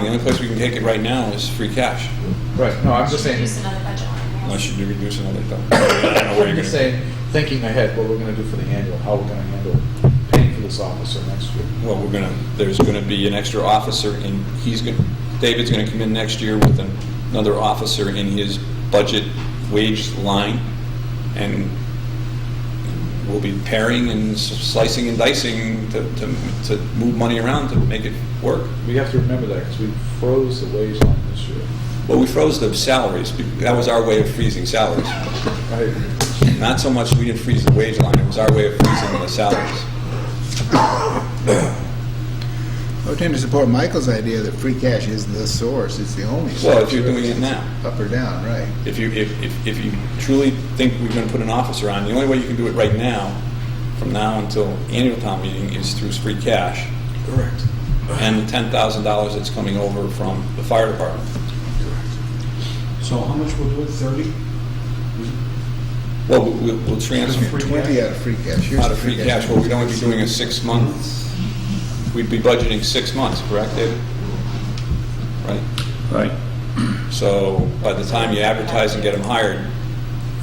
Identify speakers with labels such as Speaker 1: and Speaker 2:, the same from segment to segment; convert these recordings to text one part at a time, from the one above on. Speaker 1: The only place we can take it right now is free cash,
Speaker 2: Right, no, I'm just saying,
Speaker 3: Use another budget line.
Speaker 1: unless you do reduce another thou- I don't know where
Speaker 2: I'm
Speaker 1: you're
Speaker 2: just
Speaker 1: gonna-
Speaker 2: saying, thinking ahead, what we're gonna do for the annual, how we're gonna handle paying for this officer next year.
Speaker 1: Well, we're gonna, there's gonna be an extra officer and he's gonna, David's gonna come in next year with an- another officer in his budget wage line and we'll be paring and s- slicing and dicing to, to, to move money around to make it work.
Speaker 2: We have to remember that, because we froze the wage line this year.
Speaker 1: Well, we froze the salaries. be- That was our way of freezing salaries.
Speaker 2: Right?
Speaker 1: Not so much we didn't freeze the wage line, it was our way of freezing the salaries.
Speaker 4: I would tend to support Michael's idea that free cash is the source, it's the only source.
Speaker 1: Well, if you're doing it now.
Speaker 4: Up or down, right.
Speaker 1: If you, if, if, if you truly think we're gonna put an officer on, the only way you can do it right now, from now until annual town meeting, is through free cash
Speaker 2: Correct.
Speaker 1: and the ten thousand dollars that's coming over from the fire department.
Speaker 5: So how much will do it, 30?
Speaker 1: Well, we- we'll, we'll transfer
Speaker 5: Free
Speaker 4: Twenty
Speaker 5: cash.
Speaker 4: out of free cash. Here's
Speaker 1: out
Speaker 4: the
Speaker 1: of free cash, well, we'd only be doing a six months, we'd be budgeting six months, correct, David? Right?
Speaker 6: Right.
Speaker 1: So by the time you advertise and get them hired,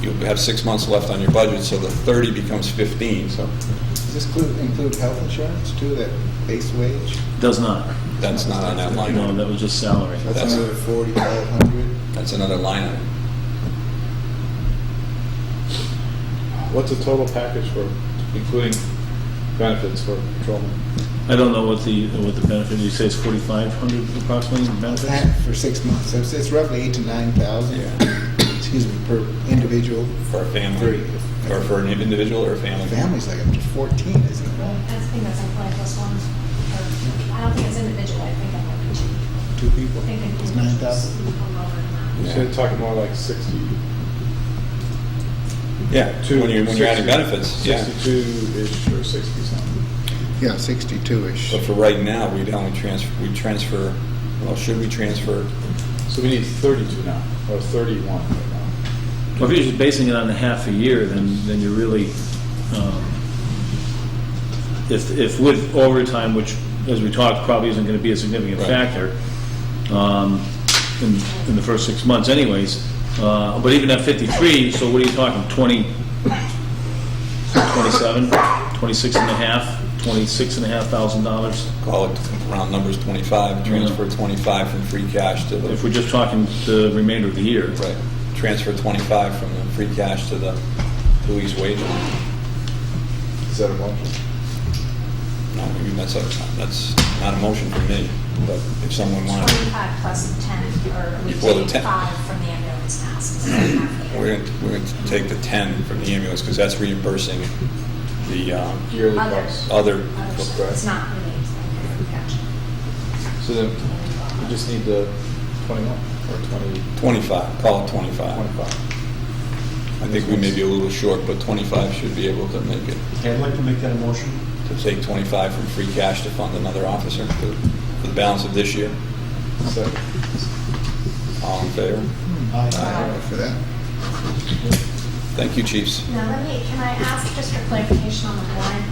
Speaker 1: you'll have six months left on your budget, so the 30 becomes 15, so
Speaker 4: Does this include, include health insurance too, that base wage?
Speaker 6: Does not.
Speaker 1: that's not on that line
Speaker 6: No,
Speaker 1: item.
Speaker 6: that was just salary.
Speaker 1: That's-
Speaker 4: That's another forty-five hundred.
Speaker 1: That's another line item.
Speaker 2: What's the total package for, including benefits for patrolmen?
Speaker 6: I don't know what the, what the benefit, you say it's 4,500 approximately in benefits?
Speaker 4: That for six months, so it's, it's roughly eight to nine thousand, excuse me, per individual.
Speaker 1: For a family,
Speaker 4: Three.
Speaker 1: or for an individual or a family.
Speaker 4: Family's like up to fourteen, isn't
Speaker 3: I
Speaker 4: it?
Speaker 3: think that's employee plus one. or- uh, I don't think it's individual, I think that might be cheap.
Speaker 4: Two people,
Speaker 3: I think it
Speaker 4: it's
Speaker 3: is
Speaker 4: nine thousand.
Speaker 2: You said talking more like sixty.
Speaker 1: Yeah, when you're, when you're adding benefits, yeah.
Speaker 2: Sixty-two-ish or sixty-something.
Speaker 4: Yeah, sixty-two-ish.
Speaker 1: But for right now, we'd only transfer, we transfer, well, should we transfer?
Speaker 2: So we need thirty-two now, or thirty-one right now.
Speaker 6: Well, if you're just basing it on a half a year, then, then you're really, um, if, if with overtime, which, as we talked, probably isn't going to be a significant
Speaker 1: Right.
Speaker 6: factor um, in, in the first six months anyways, uh, but even at 53, so what are you talking, 20, 27, 26 and a half, 26 and a half thousand dollars?
Speaker 1: Call it round numbers 25, transfer 25 from free cash to the.
Speaker 6: If we're just talking the remainder of the year.
Speaker 1: Right, transfer 25 from the free cash to the police wage line.
Speaker 2: Is that a motion?
Speaker 1: No, I mean, that's, a- that's not a motion for me, but if someone wanted,
Speaker 3: Twenty-five plus ten, or we
Speaker 1: Before the 10.
Speaker 3: take five from the ambulance now, since it's half the
Speaker 1: we're
Speaker 3: year.
Speaker 1: going to, we're going to take the 10 from the ambulance, because that's reimbursing the um,
Speaker 2: Yearly
Speaker 3: Other.
Speaker 2: price.
Speaker 1: other,
Speaker 3: Other stuff, It's not related to the gotcha.
Speaker 2: So then we just need the twenty-one or twenty,
Speaker 1: 25, call it 25.
Speaker 2: twenty-five.
Speaker 1: I think we may be a little short, but 25 should be able to make it,
Speaker 5: Okay, I'd like to make that a motion.
Speaker 1: to take 25 from free cash to fund another officer for for the balance of this year.
Speaker 2: Second.
Speaker 1: All in favor?
Speaker 4: Aye, For that.
Speaker 1: Thank you, chiefs.
Speaker 3: Now, let me, can I ask just for clarification on the warrant?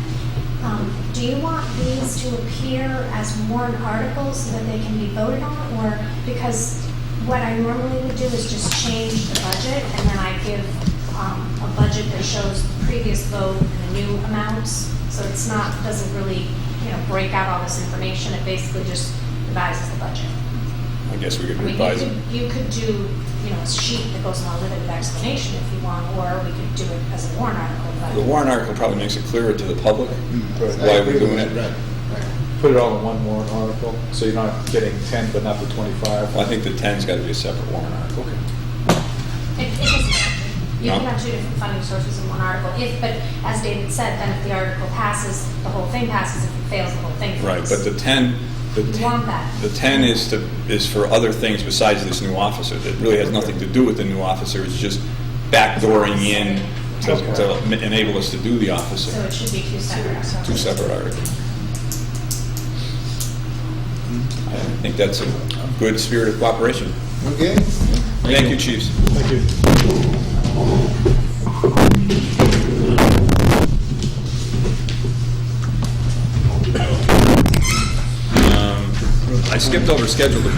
Speaker 3: Um, Do you want these to appear as warrant articles so that they can be voted on? Or, because what I normally would do is just change the budget, and then I give um, a budget that shows the previous vote and the new amounts, so it's not, doesn't really, you know, break out all this information, it basically just revises the budget.
Speaker 1: I guess we could
Speaker 3: I mean,
Speaker 1: revise
Speaker 3: you
Speaker 1: it.
Speaker 3: could, you could do, you know, a sheet that goes along with it with explanation if you want, or we could do it as a warrant article, but.
Speaker 1: The warrant article probably makes it clearer to the public.
Speaker 2: Right.
Speaker 1: Why
Speaker 4: Hmm. I
Speaker 1: are we
Speaker 4: agree
Speaker 1: doing
Speaker 4: with
Speaker 1: it?
Speaker 4: that, Right, right.
Speaker 2: Put it all in one warrant article, so you're not getting ten, but not the twenty-five.
Speaker 1: Well, I think the 10's got to be a separate warrant article.
Speaker 2: Okay.
Speaker 3: It, it doesn't matter. You
Speaker 1: No.
Speaker 3: can have two different funding sources in one article, if, but as David said, then if the article passes, the whole thing passes, if it fails, the whole thing
Speaker 1: Right, but
Speaker 3: fails.
Speaker 1: the 10, the
Speaker 3: You
Speaker 1: 10
Speaker 3: want that.
Speaker 1: the 10 is to, is for other things besides this new officer. That really has nothing to do with the new officer, it's just backdooring in to to enable us to do the
Speaker 3: So
Speaker 1: officer.
Speaker 3: it should be two separate. articles.
Speaker 1: Two separate articles. I think that's a good spirit of cooperation.
Speaker 4: Okay.
Speaker 1: Thank you, chiefs.
Speaker 2: Thank you.
Speaker 1: Um, I skipped over scheduled